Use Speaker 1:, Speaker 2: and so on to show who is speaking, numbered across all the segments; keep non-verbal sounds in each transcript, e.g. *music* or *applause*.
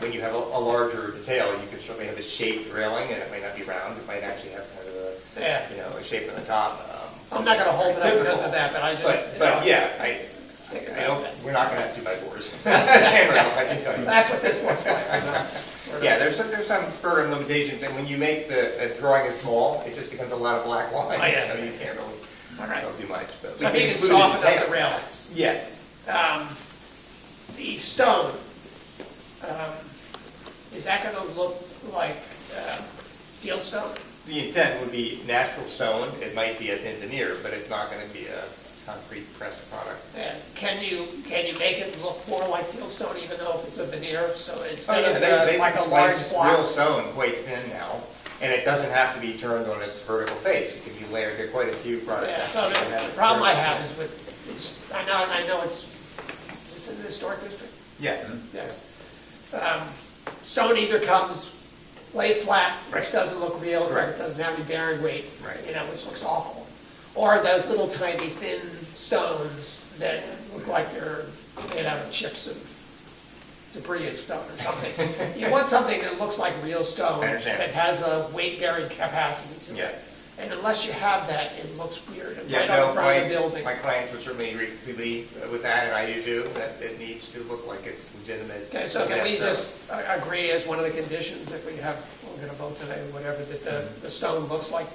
Speaker 1: when you have a, a larger detail, you can certainly have a shaped railing, and it might not be round, it might actually have kind of
Speaker 2: Yeah.
Speaker 1: a, you know, a shape on the top. um,
Speaker 2: I'm not gonna hold it up because
Speaker 1: typical.
Speaker 2: of that, but I just.
Speaker 1: But,
Speaker 2: you know,
Speaker 1: but yeah, I,
Speaker 2: think
Speaker 1: I
Speaker 2: about
Speaker 1: don't,
Speaker 2: that.
Speaker 1: we're not gonna have two by *laughs* fours. Hammer out, I can tell you.
Speaker 2: That's what this looks like. I'm not- we're
Speaker 1: Yeah,
Speaker 2: not-
Speaker 1: there's some, there's some further limitations, and when you make the, a drawing as small, it just becomes a lot of black lines,
Speaker 2: Oh, yeah.
Speaker 1: so you can't really,
Speaker 2: All right.
Speaker 1: don't do much, but.
Speaker 2: So
Speaker 1: we
Speaker 2: if you
Speaker 1: include
Speaker 2: can
Speaker 1: it in
Speaker 2: soften up
Speaker 1: detail.
Speaker 2: the railings.
Speaker 1: Yeah,
Speaker 2: Um, The stone, um, is that gonna look like uh, field stone?
Speaker 1: the intent would be natural stone, it might be a thin veneer, but it's not gonna be a concrete pressed product.
Speaker 2: And can you, can you make it look more like field stone even though if it's a veneer, so
Speaker 1: Oh,
Speaker 2: instead
Speaker 1: yeah, they,
Speaker 2: of the-
Speaker 1: they
Speaker 2: like
Speaker 1: can
Speaker 2: a large
Speaker 1: slice real
Speaker 2: block?
Speaker 1: stone quite thin now, and it doesn't have to be turned on its vertical face, it can be layered, there are quite a few products.
Speaker 2: Yeah,
Speaker 1: that
Speaker 2: so
Speaker 1: can
Speaker 2: the
Speaker 1: have
Speaker 2: the
Speaker 1: it
Speaker 2: problem I
Speaker 1: very-
Speaker 2: have is with, is- I know, and I know it's, is this in the historic district?
Speaker 1: Yeah.
Speaker 2: Yes. Um, Stone either comes laid flat, which
Speaker 1: Right.
Speaker 2: doesn't look real, or it
Speaker 1: Correct.
Speaker 2: doesn't have any bearing weight,
Speaker 1: Right.
Speaker 2: you know, which looks awful. Or those little tiny thin stones that look like they're made out of chips of debris of stone or something.
Speaker 1: *laughs*
Speaker 2: You want something that looks like real stone.
Speaker 1: I understand.
Speaker 2: That has a weight-bearing capacity to
Speaker 1: Yeah.
Speaker 2: it. And unless you have that, it looks weird, and
Speaker 1: Yeah,
Speaker 2: right on
Speaker 1: no,
Speaker 2: the front of the
Speaker 1: my,
Speaker 2: building.
Speaker 1: my clients would certainly agree completely with that, and I do too, that it needs to look like it's legitimate.
Speaker 2: Okay, so can we
Speaker 1: Yeah,
Speaker 2: just a- agree as one of the conditions that we have, we're gonna vote today, whatever, that the, the stone looks like?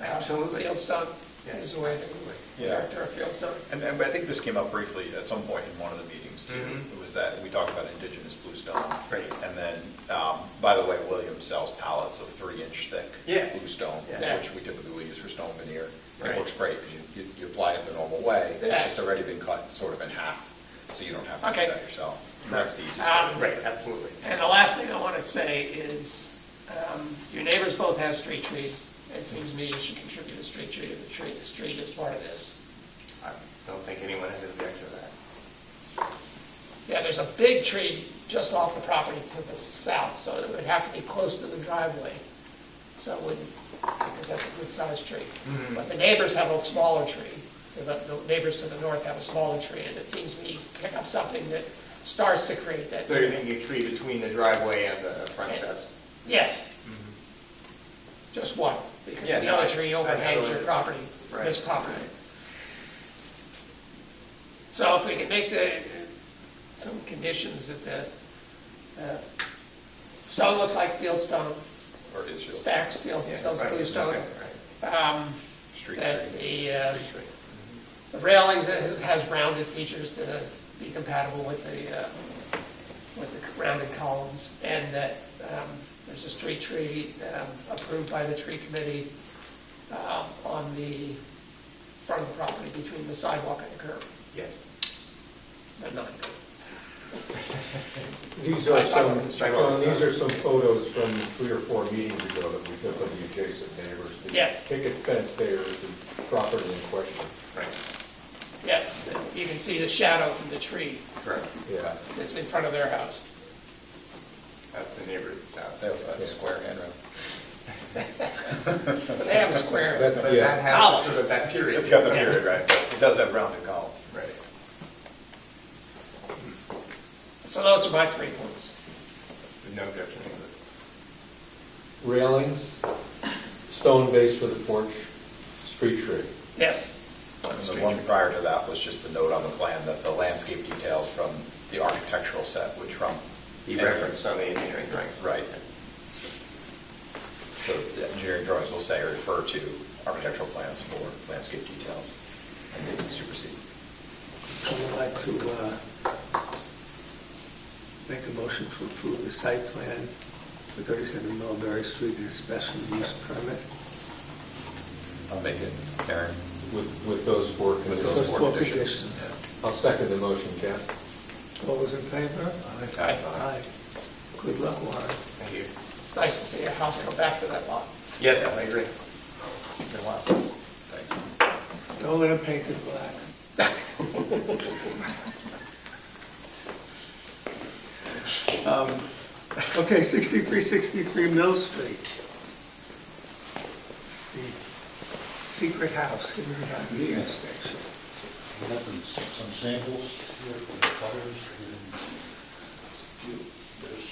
Speaker 2: uh,
Speaker 1: Absolutely.
Speaker 2: Field stone
Speaker 1: Yeah.
Speaker 2: is the way that we would
Speaker 3: Yeah.
Speaker 2: character a field stone.
Speaker 3: And, and I think this came up briefly at some point in one of the meetings too.
Speaker 1: Mhm.
Speaker 3: It was that, we talked about indigenous bluestone.
Speaker 1: Right.
Speaker 3: And then, um, by the way, Williams sells pallets of three-inch thick.
Speaker 1: Yeah.
Speaker 3: Bluestone,
Speaker 1: Yeah.
Speaker 3: which we typically will use for stone veneer.
Speaker 1: Right.
Speaker 3: It works great, because you, you- you apply it the normal way. It's
Speaker 2: Yes.
Speaker 3: just already been cut sort of in half, so you don't have to
Speaker 2: Okay.
Speaker 3: do that yourself. And that's the easiest. way to
Speaker 2: Um,
Speaker 3: do it.
Speaker 1: Right, absolutely.
Speaker 2: And the last thing I wanna say is, um, your neighbors both have street trees. It seems to me you should contribute a street tree to the tree, the street as part of this.
Speaker 1: I don't think anyone has an objection to that.
Speaker 2: Yeah, there's a big tree just off the property to the south, so it would have to be close to the driveway. So it wouldn't, because that's a good-sized tree. But the neighbors have a smaller tree, so the the neighbors to the north have a smaller tree, and it seems to me pick up something that starts to create that.
Speaker 1: So you're thinking a tree between the driveway and the front steps?
Speaker 2: Yes. Just one, because
Speaker 1: Mm-hmm. Yeah,
Speaker 2: the
Speaker 1: no,
Speaker 2: other
Speaker 1: I-
Speaker 2: tree
Speaker 1: I
Speaker 2: overhangs your
Speaker 1: totally-
Speaker 2: property, this
Speaker 1: Right.
Speaker 2: property. So if we can make the, some conditions that the, uh, stone looks like field stone,
Speaker 3: Or is your
Speaker 2: stacked steel,
Speaker 1: Yeah,
Speaker 2: steel
Speaker 1: right,
Speaker 2: blue stone,
Speaker 1: okay, right.
Speaker 2: um,
Speaker 3: street
Speaker 2: that
Speaker 3: tree?
Speaker 2: the, uh, the railings has has rounded features to be compatible with the, uh, with the rounded columns, and that um, there's a street tree um, approved by the tree committee um, on the front of the property between the sidewalk and the curb,
Speaker 1: Yes.
Speaker 2: but not the curb.
Speaker 4: These are some,
Speaker 1: Sidewalk.
Speaker 4: John, these are some photos from three or four meetings ago that we took of the adjacent neighbors. The
Speaker 2: Yes.
Speaker 4: Picket fence there is the property in question.
Speaker 1: Right,
Speaker 2: Yes, and you can see the shadow from the tree
Speaker 1: correct.
Speaker 4: Yeah.
Speaker 2: that's in front of their house.
Speaker 1: That's the neighborhood south.
Speaker 3: That was a square handrail.
Speaker 2: They have a square.
Speaker 4: That-
Speaker 1: But
Speaker 4: yeah.
Speaker 1: that
Speaker 2: Oh.
Speaker 1: house is sort of that period.
Speaker 3: It's got the
Speaker 1: Yeah.
Speaker 3: period, right? It does have rounded columns.
Speaker 1: Right.
Speaker 2: So those are my three points.
Speaker 1: No objection. to
Speaker 4: Railings, stone base for the porch, street tree.
Speaker 2: Yes.
Speaker 3: And the one prior to that was just a note on the plan that the landscape details from the architectural set would trump.
Speaker 1: it. He referenced on the engineering drawings.
Speaker 3: Right. So the engineering drawings will say or refer to architectural plans for landscape details, and they can supersede.
Speaker 5: I would like to uh, make a motion to approve the site plan for 37 Mulberry Street and a special use permit.
Speaker 3: I'll make it, Karen.
Speaker 4: With, with those four
Speaker 3: With those
Speaker 4: conditions.
Speaker 3: four
Speaker 5: four
Speaker 3: conditions.
Speaker 5: conditions.
Speaker 4: I'll second the motion, Jeff.
Speaker 5: All those in favor?
Speaker 3: Aye.
Speaker 5: Aye. Good luck, Warren.
Speaker 1: Thank you.
Speaker 2: It's nice to see a house go back to that lot.
Speaker 1: Yes, I agree. It's been a while.
Speaker 3: Thank you.
Speaker 5: Don't let them paint it black. Um, Okay, 6363 Mill Street. The secret house, hidden behind the gas station.
Speaker 6: We have some- some samples here for the colors and there's